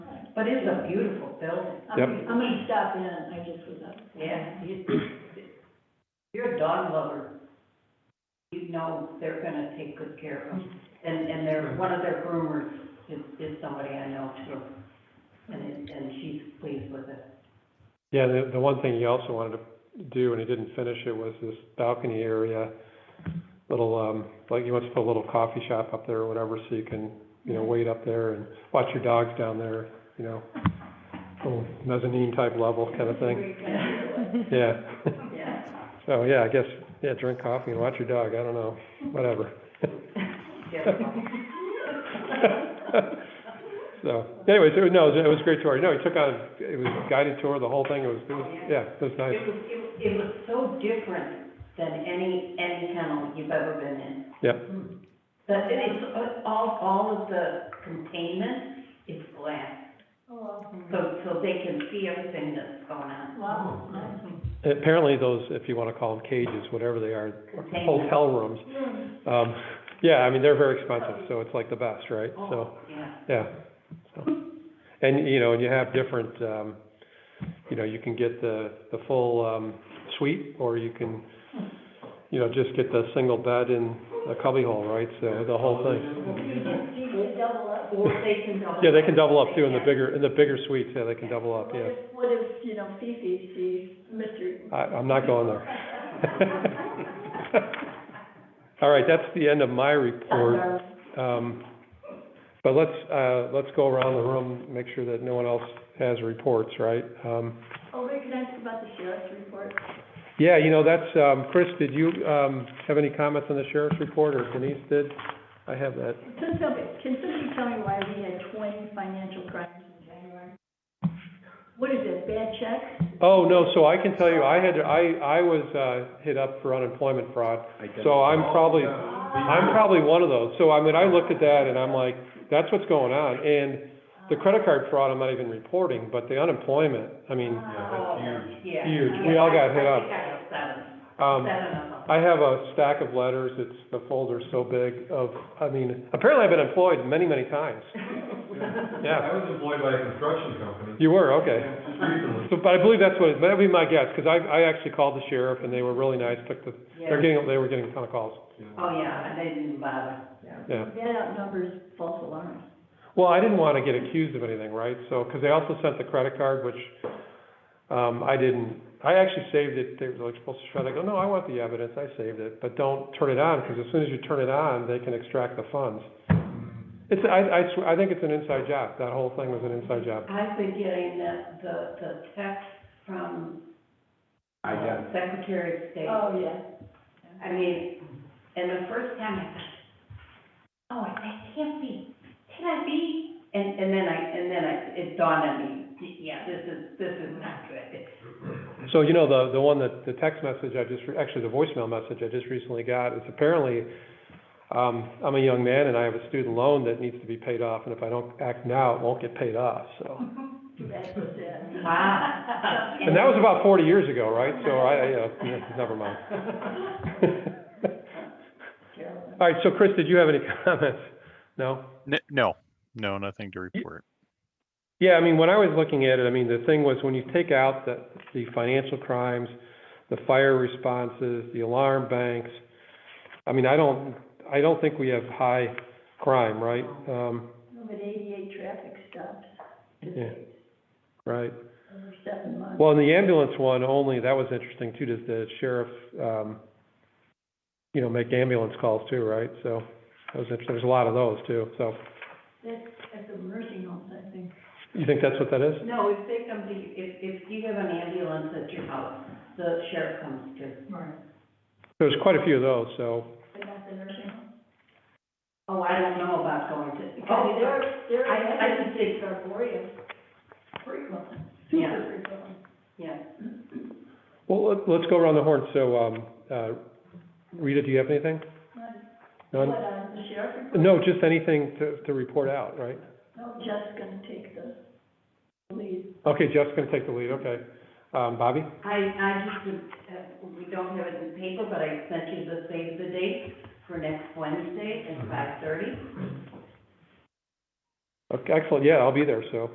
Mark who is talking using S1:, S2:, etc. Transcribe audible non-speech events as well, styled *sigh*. S1: But it's a beautiful building.
S2: Yep.
S3: I'm gonna stop in, I just was up.
S1: Yeah, you, you're a dog lover. You know they're gonna take good care of them. And, and they're, one of their groomers is, is somebody I know too. And, it- and she's pleased with it.
S2: Yeah, the, the one thing he also wanted to do, and he didn't finish it, was this balcony area, little, um, like he wants to put a little coffee shop up there or whatever, so you can, you know, wait up there and watch your dogs down there, you know, little mezzanine type level kind of thing, yeah. *laughs*
S1: Yeah.
S2: So, yeah, I guess, yeah, drink coffee and watch your dog, I don't know, whatever. *laughs* So, anyways, it was, no, it was, it was a great tour, no, he took on, it was a guided tour, the whole thing, it was, it was, yeah, it was nice,
S1: It was, it, was- it was so different than any, any kennel you've ever been in.
S2: Yep.
S1: But it is, uh, all, all of the containment is glass,
S3: Oh,
S1: so, so they can see everything that's going on.
S3: wow.
S2: Apparently those, if you want to call them cages, whatever they are,
S1: Containment.
S2: hotel rooms, um, yeah, I mean, they're very expensive, so it's like the best, right? So,
S1: Oh, yeah.
S2: yeah. So, And, you know, and you have different, um, you know, you can get the, the full, um, suite, or you can, you know, just get the single bed in a cubbyhole, right? So the whole thing.
S3: You could double up.
S1: Or they can double.
S2: Yeah, they can double up too in the
S1: Yeah.
S2: bigger, in the bigger suites, yeah, they can double up,
S3: What
S2: yeah.
S3: if- What if, you know, Fifi sees Mr.
S2: I, I'm not going there.
S3: *laughs*
S2: All right, that's the end of my report.
S3: Dunbar?
S2: Um, but let's, uh, let's go around the room, make sure that no one else has reports, right? Um,
S3: Oh, wait, can I ask about the sheriff's report?
S2: yeah, you know, that's, um, Chris, did you, um, have any comments on the sheriff's report, or Denise did? I have that.
S3: Can somebody, can somebody tell me why we had twenty financial crimes in January? What is it, bad checks?
S2: Oh, no, so I can tell you, I had, I, I was, uh, hit up for unemployment fraud, so I'm probably, I'm probably one of those. So I mean, I looked at that and I'm like, that's what's going on. And the credit card fraud, I'm not even reporting, but the unemployment, I mean,
S1: Oh, Yeah.
S2: Huge. We all got hit up.
S1: I think I got seven,
S2: um,
S1: seven of them.
S2: I have a stack of letters, it's, the folder's so big of, I mean, apparently I've been employed many, many times.
S4: *laughs*
S2: Yeah,
S4: I was employed by a construction company.
S2: you were, okay.
S4: Just recently.
S2: So, but I believe that's what, it- that'd be my guess, because I, I actually called the sheriff and they were really nice, took the, they're
S1: Yeah.
S2: getting, they were getting a ton of calls,
S4: Yeah.
S1: Oh, yeah, and they didn't bother.
S2: yeah.
S3: That outnumbers false alarms.
S2: Well, I didn't want to get accused of anything, right? So, because they also sent the credit card, which, um, I didn't, I actually saved it, they were like supposed to shut it, I go, no, I want the evidence, I saved it, but don't turn it on, because as soon as you turn it on, they can extract the funds. It's, I, I swear, I think it's an inside job, that whole thing was an inside job.
S1: I've been getting the, the, the text from
S5: I got,
S1: Secretary of State.
S3: Oh, yeah.
S1: I mean, and the first time I thought, oh, that can't be, can I be? And, and then I, and then I, it dawned on me, yeah, this is, this is not good.
S2: So, you know, the, the one that, the text message I just, re- actually, the voicemail message I just recently got, is apparently, um, I'm a young man and I have a student loan that needs to be paid off, and if I don't act now, it won't get paid off, so.
S3: *laughs* Too bad for that. *laughs*
S1: Wow.
S2: And that was about forty years ago, right? So I, I, uh, yeah, never mind.
S3: Carolyn.
S2: All right, so Chris, did you have any *laughs* comments? No?
S6: N- No, no, nothing to report.
S2: Yeah, I mean, when I was looking at it, I mean, the thing was, when you take out the, the financial crimes, the fire responses, the alarm banks, I mean, I don't, I don't think we have high crime, right? Um,
S3: No, But eighty-eight traffic stops this
S2: Yeah.
S3: week,
S2: right?
S3: over seven months.
S2: Well, in the ambulance one only, that was interesting too, does the sheriff, um, you know, make ambulance calls too, right? So, that was interesting, there's a lot of those too, so,
S3: That's at the nursing homes, I think.
S2: you think that's what that is?
S1: No, if they come to, if, if you have an ambulance at your house, the sheriff comes to.
S3: Right.
S2: There's quite a few of those, so,
S3: But not the nursing home?
S1: Oh, I don't know about going to.
S3: Because Oh, they're, they're,
S1: I- I can see.
S3: are glorious. Frequently,
S1: Yeah.
S3: super frequently.
S1: Yeah.
S2: well, let- let's go around the horn, so, um, uh, Rita, do you have anything?
S3: What,
S2: None?
S3: uh, the sheriff report?
S2: No, just anything to, to report out, right?
S3: No, Jeff's gonna take the lead.
S2: Okay, Jeff's gonna take the lead, okay. Um, Bobby?
S1: I, I just, would, uh, we don't have it in paper, but I sent you the save the date for next Wednesday at five thirty.
S2: Okay, excellent, yeah, I'll be there, so.